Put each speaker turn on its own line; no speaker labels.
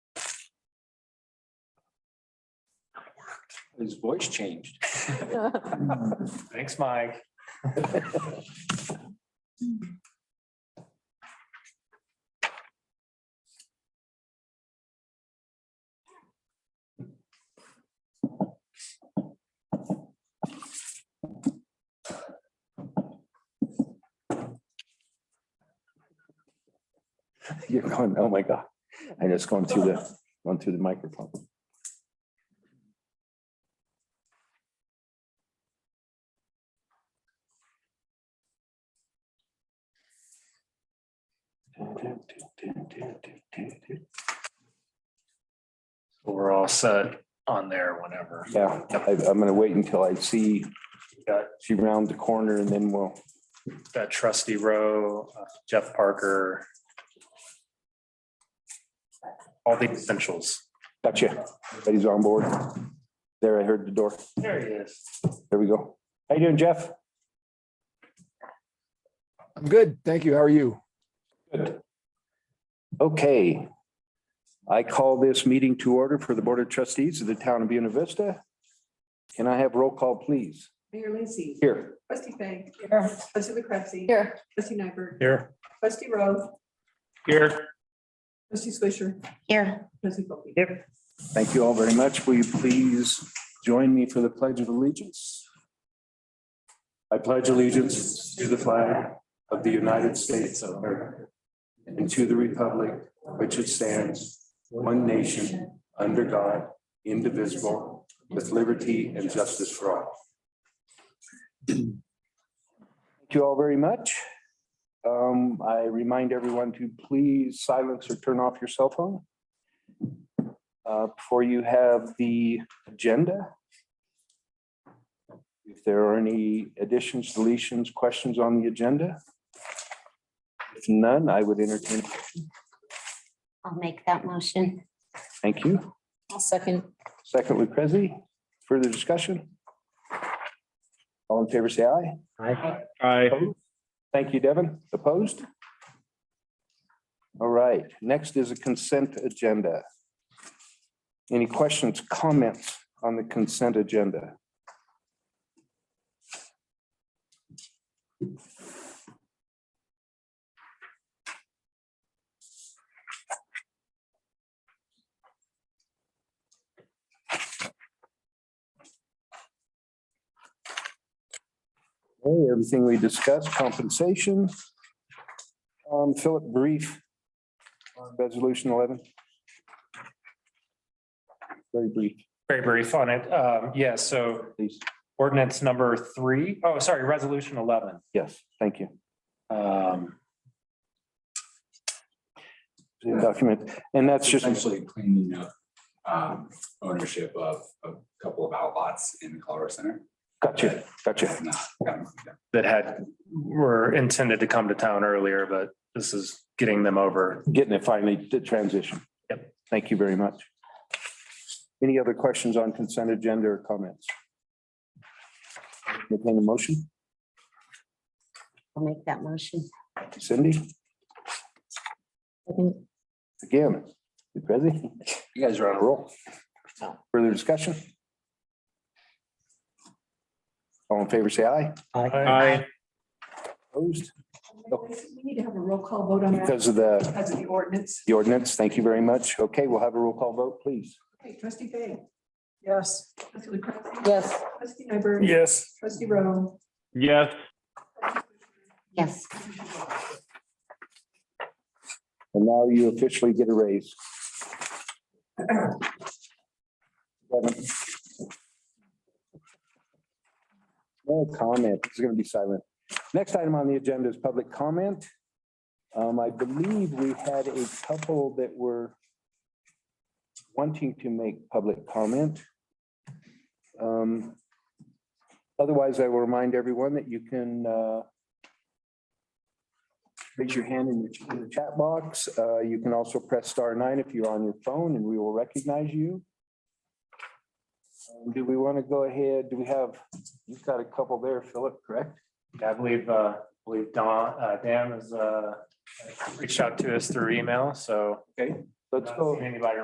His voice changed.
Thanks, Mike.
You're going, oh my God. I just going through the, going through the microphone.
We're all set on there whenever.
Yeah, I, I'm gonna wait until I see, uh,
Got-
she round the corner and then we'll,
Got trustee Rowe, uh, Jeff Parker. All the essentials.
gotcha. Everybody's on board. There, I heard the door.
There he is.
There we go. How you doing, Jeff?
I'm good. Thank you. How are you?
Okay. I call this meeting to order for the Board of Trustees of the Town of Buena Vista. Can I have roll call, please?
Mayor Lacy.
Here.
Trustee Fang. Here. Trustee LaCretzi.
Here.
Trustee Nyberg.
Here.
Trustee Rowe.
Here.
Trustee Swisher.
Here.
Trustee Wilkie.
Thank you all very much. Will you please join me for the Pledge of Allegiance?
I pledge allegiance to the flag of the United States of America and to the republic which it stands, one nation, under God, indivisible, with liberty and justice for all.
Thank you all very much. Um, I remind everyone to please silence or turn off your cell phone. Uh, before you have the agenda. If there are any additions, deletions, questions on the agenda. If none, I would entertain.
I'll make that motion.
Thank you.
I'll second.
Second, Lucrezi, further discussion? All in favor, say aye.
Aye.
Thank you, Devin. Opposed? All right, next is a consent agenda. Any questions, comments on the consent agenda? Okay, everything we discussed, compensation. Um, Philip, brief on resolution eleven. Very brief,
Very brief on it. Um, yeah, so
please.
ordinance number three. Oh, sorry, resolution eleven.
Yes, thank you.
Um,
Document, and that's just,
essentially cleaning up um, ownership of a couple of outlots in the Colorado Center.
gotcha, gotcha.
Have not gotten cleaned up.
that had, were intended to come to town earlier, but this is getting them over.
getting it finally to transition. Yep. Thank you very much. Any other questions on consent agenda or comments? Entertain a motion,
I'll make that motion.
Cindy,
Second.
again, Lucrezi, you guys are on a roll. Further discussion? All in favor, say aye.
Aye.
Opposed?
We need to have a roll call vote on that
Because of the,
because of the ordinance.
the ordinance, thank you very much. Okay, we'll have a roll call vote, please.
Okay, Trustee Fang. Yes. Trustee LaCretzi.
Yes.
Trustee Nyberg.
Yes.
Trustee Rowe.
Yes.
Yes.
And now you officially get a raise. Seven. No comment. It's going to be silent. Next item on the agenda is public comment. Um, I believe we had a couple that were wanting to make public comment. Um, Otherwise, I will remind everyone that you can, uh, raise your hand in the- in the chat box. Uh, You can also press star nine if you're on your phone and we will recognize you. Um, Do we want to go ahead? Do we have, you've got a couple there, Philip, correct?
I believe, uh, believe Don, uh, Dan has, uh, reached out to us through email, so.
Let's
not
go.
seen Anybody